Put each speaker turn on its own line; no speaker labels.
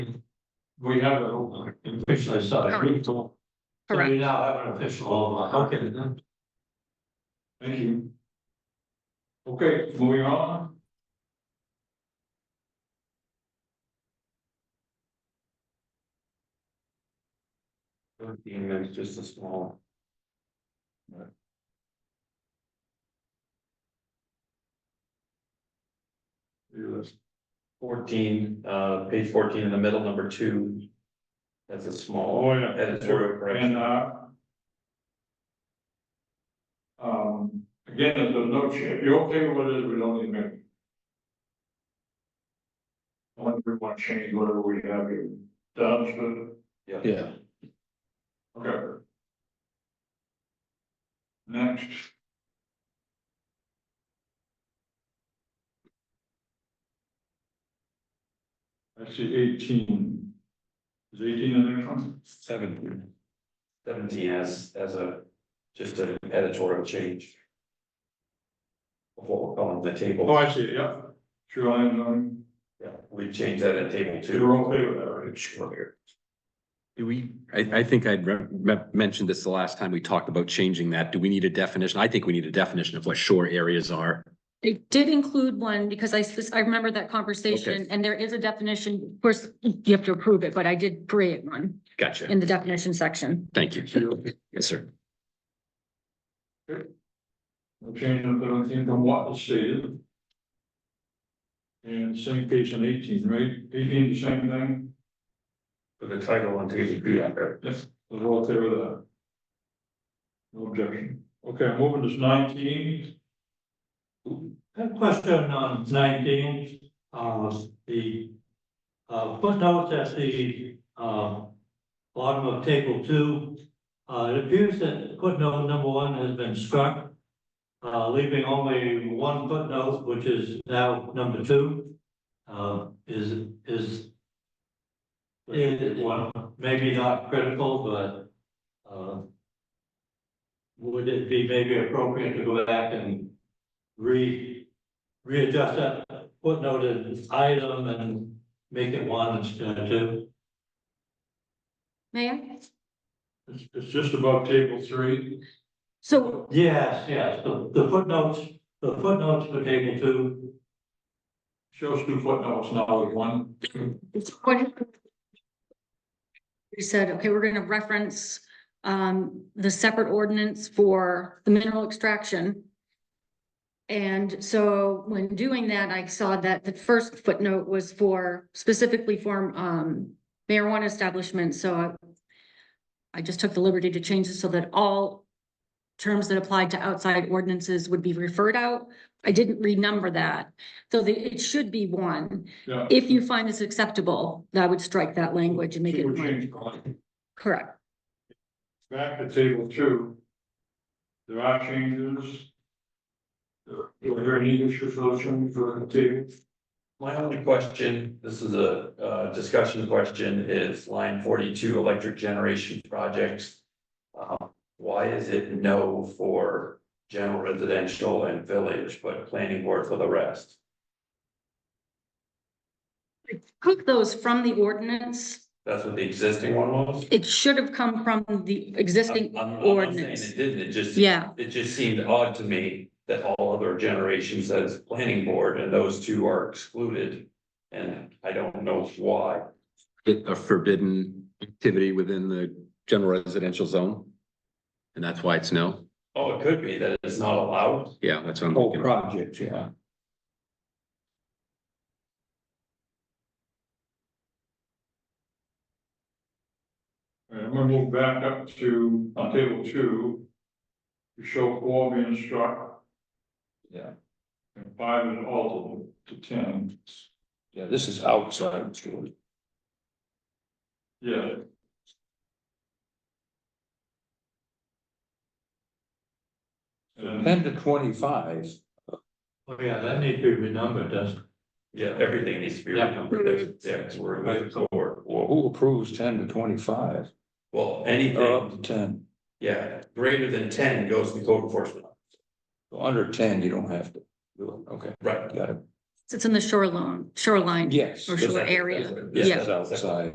We have an official inside. We don't- so
correct?
We now have an official, online. okay. then. Thank you. Okay, moving on. It's just a small.
Fourteen, uh, page fourteen in the middle, number two. That's a small
Oh, yeah.
editorial correction.
And, uh. Um, again, there's a note here, you're okay with it, we don't need many. I wonder if we want to change whatever we have here, Down to
Yeah.
okay. Next. I see eighteen. Is eighteen the next one?
Seventeen. Seventeen as, as a, just an editorial change. Of what we're calling the
Oh,
table,
I see, yeah, sure, I'm, um.
yeah, we changed that at table
So You're
two.
okay with that, right?
Sure.
Do we, I, I think I'd re- me- mentioned this the last time we talked about changing that. Do we need a definition? I think we need a definition of what shore areas are.
It did include one because I, spec- I remember that conversation and there is a definition. Of course, you have to approve it, but I did create one
Gotcha.
in the definition section.
Thank you. Yes, sir.
No change in seventeen from what was stated. And same page in eighteen, right? Eighteen, the same thing,
For the title on table two, after.
we're all okay with that. No objection. Okay, moving to nineteen.
I have a question on nineteen, uh, the, uh, footnotes at the, uh, bottom of table two. Uh, it appears that footnote number one has been struck, uh, leaving only one footnote, which is now number two. Uh, is, is is, well, maybe not critical, but, uh, would it be maybe appropriate to go back and re, readjust that footnoted item and make it one instead of two?
May I?
It's, it's just above table three.
So,
Yes, yes, the, the footnotes, the footnotes for table two,
Shows two footnotes now with one.
it's what? We said, okay, we're gonna reference, um, the separate ordinance for the mineral extraction. And so when doing that, I saw that the first footnote was for specifically for, um, marijuana establishments, so I. I just took the liberty to change it so that all terms that applied to outside ordinances would be referred out. I didn't renumber that, so the, it should be one.
Yeah.
If you find this acceptable, I would strike that language and make
Two
it
change on.
correct.
Back to table two. There are changes. Are there any issues or something for the table?
My only question, this is a, uh, discussion question, is line forty-two, electric generation projects. Um, why is it no for general residential and village, but planning board for the rest?
Took those from the ordinance,
That's what the existing one was?
it should have come from the existing
I'm- I'm not saying
ordinance.
It didn't, it just.
Yeah,
It just seemed odd to me that all other generations says planning board and those two are excluded. And I don't know why.
It a forbidden activity within the general residential zone. And that's why it's no.
Oh, it could be that it's not allowed.
Yeah, that's what I'm
Oh,
looking at.
project, yeah.
All right, I'm gonna move back up to on table two. To show four being struck.
Yeah.
And five is altered to ten,
Yeah, this is outside school.
yeah. And
to twenty-five.
oh yeah, that needs to be renumbered, doesn't
Yeah, everything needs to be
Yeah.
renumbered, There's- yeah, because we're moving forward.
Well, who approves ten to twenty-five,
Well,
or up
Uh-huh.
to
anything,
ten,
yeah, greater than ten goes to the code enforcement,
So under ten, you don't have to do it, okay,
right?
got it,
it's in the shoreline, shoreline
yes.
or
that's-
shore area.
Yeah.
That's outside.